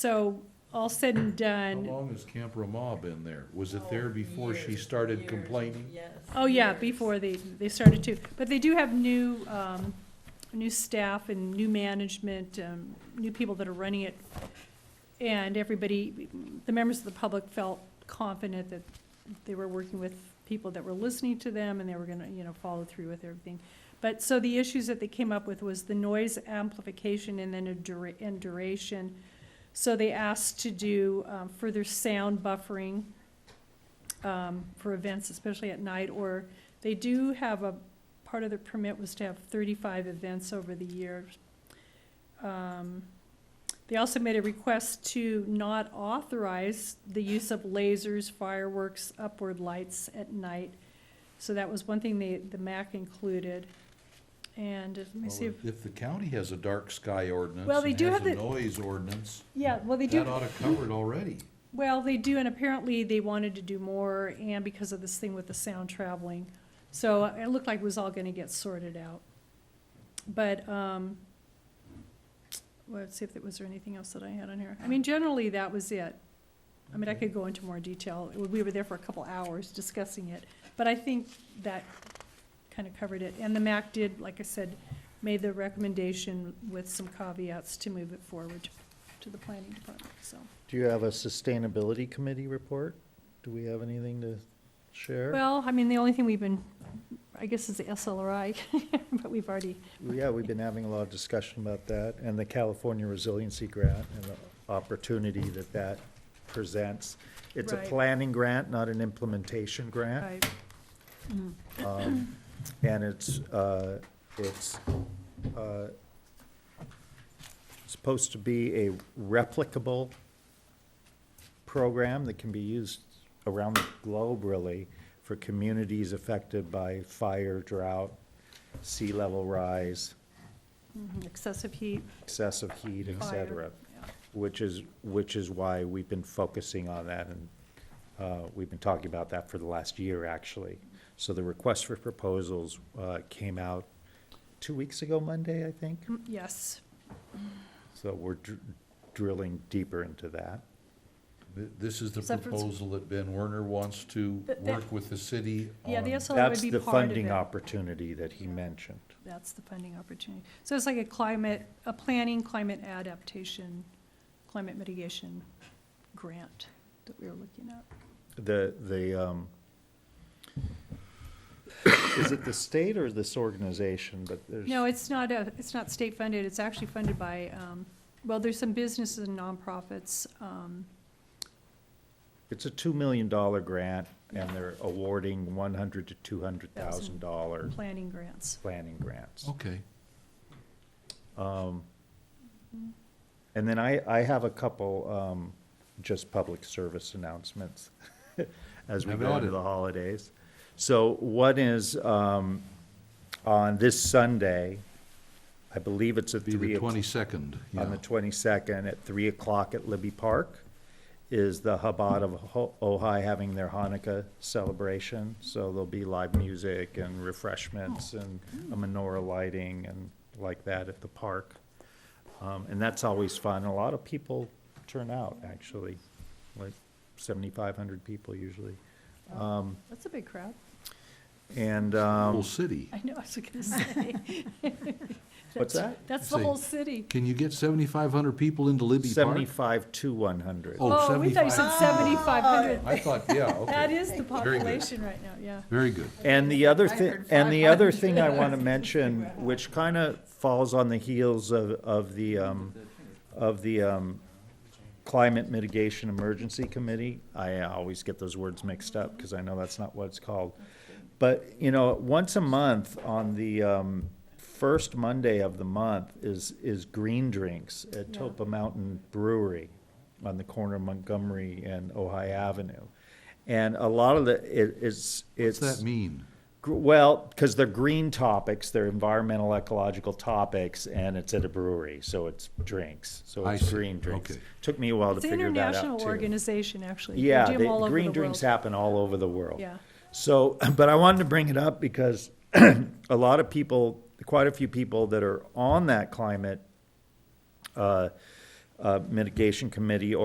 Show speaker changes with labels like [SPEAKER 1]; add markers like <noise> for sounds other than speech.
[SPEAKER 1] So all said and
[SPEAKER 2] How
[SPEAKER 1] done,
[SPEAKER 2] long has Camp Ramah been there? Was it there before she started complaining?
[SPEAKER 3] Yes.
[SPEAKER 1] oh yeah, before they, they started to, but they do have new, um, new staff and new management, um, new people that are running it. And everybody, the members of the public felt confident that they were working with people that were listening to them and they were gonna, you know, follow through with everything. But, so the issues that they came up with was the noise amplification and then a dura- and duration. So they asked to do, um, further sound buffering, um, for events, especially at night, or they do have a, part of the permit was to have thirty-five events over the years. Um, They also made a request to not authorize the use of lasers, fireworks, upward lights at night. So that was one thing they, the MAC included. And uh, let me see if,
[SPEAKER 2] Well, If the county has a dark sky ordinance
[SPEAKER 1] Well, they
[SPEAKER 2] and
[SPEAKER 1] do
[SPEAKER 2] has
[SPEAKER 1] have
[SPEAKER 2] a
[SPEAKER 1] the-
[SPEAKER 2] noise ordinance,
[SPEAKER 1] yeah, well, they do.
[SPEAKER 2] that ought to cover it already.
[SPEAKER 1] Well, they do, and apparently they wanted to do more, and because of this thing with the sound traveling. So it looked like it was all gonna get sorted out. But, um, well, let's see if there was there anything else that I had on here. I mean, generally, that was it. I mean, I could go into more detail. We were there for a couple hours discussing it, but I think that kind of covered it. And the MAC did, like I said, made the recommendation with some caveats to move it forward to the planning department, so.
[SPEAKER 4] Do you have a sustainability committee report? Do we have anything to share?
[SPEAKER 1] Well, I mean, the only thing we've been, I guess, is the SLRI, <laughs> but we've already,
[SPEAKER 4] Yeah, we've been having a lot of discussion about that, and the California Resiliency Grant and the opportunity that that presents. It's a
[SPEAKER 1] Right.
[SPEAKER 4] planning grant, not an implementation grant.
[SPEAKER 1] right,
[SPEAKER 4] Um, And it's, uh, it's uh, supposed to be a replicable program that can be used around the globe, really, for communities affected by fire, drought, sea level rise,
[SPEAKER 1] excessive heat,
[SPEAKER 4] excessive heat, et
[SPEAKER 1] fire.
[SPEAKER 4] cetera.
[SPEAKER 1] yeah.
[SPEAKER 4] Which is, which is why we've been focusing on that, and uh, we've been talking about that for the last year, actually. So the request for proposals uh, came out two weeks ago Monday, I think.
[SPEAKER 1] Mm, Yes,
[SPEAKER 4] So we're dr- drilling deeper into that.
[SPEAKER 2] Th- This is the
[SPEAKER 1] Except for it's-
[SPEAKER 2] proposal that Ben Werner wants to
[SPEAKER 1] That- that-
[SPEAKER 2] work with the city on.
[SPEAKER 1] yeah, the SLRI would
[SPEAKER 4] Um, That's
[SPEAKER 1] be
[SPEAKER 4] the
[SPEAKER 1] part of
[SPEAKER 4] funding
[SPEAKER 1] it.
[SPEAKER 4] opportunity that he mentioned.
[SPEAKER 1] That's the funding opportunity. So it's like a climate, a planning, climate adaptation, climate mitigation grant that we were looking at.
[SPEAKER 4] The, the, um, <coughs> is it the state or this organization, but there's.
[SPEAKER 1] No, it's not a, it's not state funded, it's actually funded by, um, well, there's some businesses and nonprofits, um,
[SPEAKER 4] It's a two million dollar grant, and they're awarding one hundred to two hundred thousand dollar
[SPEAKER 1] planning grants.
[SPEAKER 4] planning grants.
[SPEAKER 2] Okay,
[SPEAKER 4] And then I, I have a couple, um, just public service announcements <laughs> as we
[SPEAKER 2] Have
[SPEAKER 4] go
[SPEAKER 2] at
[SPEAKER 4] into
[SPEAKER 2] it.
[SPEAKER 4] the holidays. So one is, um, on this Sunday, I believe it's at
[SPEAKER 2] be
[SPEAKER 4] three
[SPEAKER 2] the
[SPEAKER 4] o'clock
[SPEAKER 2] twenty-second, yeah.
[SPEAKER 4] on the 22nd at 3 o'clock at Libby Park is the Chabad of Ho- Ojai having their Hanukkah celebration. So there'll be live music and refreshments and a menorah lighting and like that at the park. Um, And that's always fun. A lot of people turn out, actually, like 7,500 people usually.
[SPEAKER 1] That's a big crowd.
[SPEAKER 4] And,
[SPEAKER 2] Whole
[SPEAKER 4] um,
[SPEAKER 2] city.
[SPEAKER 1] <laughs> I know, I was gonna
[SPEAKER 4] <laughs>
[SPEAKER 1] say.
[SPEAKER 4] what's that?
[SPEAKER 1] That's the
[SPEAKER 2] Say-
[SPEAKER 1] whole city.
[SPEAKER 2] Can you get seventy-five hundred people into Libby Park?
[SPEAKER 4] 75 to 100.
[SPEAKER 2] Oh,
[SPEAKER 1] Oh, we thought you said seventy-five
[SPEAKER 4] Oh.
[SPEAKER 1] hundred.
[SPEAKER 2] I thought, yeah,
[SPEAKER 1] That
[SPEAKER 2] okay,
[SPEAKER 1] is the
[SPEAKER 2] Very good.
[SPEAKER 1] population right now, yeah.
[SPEAKER 2] very good.
[SPEAKER 4] And the other
[SPEAKER 3] I
[SPEAKER 4] thing,
[SPEAKER 3] heard
[SPEAKER 4] and the other thing
[SPEAKER 3] <laughs>
[SPEAKER 4] I want to mention, which kind of falls on the heels of, of the, um, of the, um, Climate Mitigation Emergency Committee, I always get those words mixed up, because I know that's not what it's called. But, you know, once a month on the, um, first Monday of the month is, is Green Drinks at
[SPEAKER 1] Yeah.
[SPEAKER 4] Topa Mountain Brewery on the corner of Montgomery and Ojai Avenue. And a lot of the, it, it's,
[SPEAKER 2] What's
[SPEAKER 4] it's.
[SPEAKER 2] that mean?
[SPEAKER 4] Gr- Well, because they're green topics, they're environmental, ecological topics, and it's at a brewery, so it's drinks, so
[SPEAKER 2] I
[SPEAKER 4] it's
[SPEAKER 2] see.
[SPEAKER 4] green drinks.
[SPEAKER 2] Okay.
[SPEAKER 4] Took me a while to
[SPEAKER 1] It's an
[SPEAKER 4] figure that out
[SPEAKER 1] international
[SPEAKER 4] too.
[SPEAKER 1] organization, actually. They
[SPEAKER 4] Yeah,
[SPEAKER 1] do 'em
[SPEAKER 4] they-
[SPEAKER 1] all over
[SPEAKER 4] green
[SPEAKER 1] the
[SPEAKER 4] drinks
[SPEAKER 1] world.
[SPEAKER 4] happen all over the world.
[SPEAKER 1] Yeah.
[SPEAKER 4] So, <clears throat> but I wanted to bring it up because <clears throat> a lot of people, quite a few people that are on that climate uh, uh, Mitigation Committee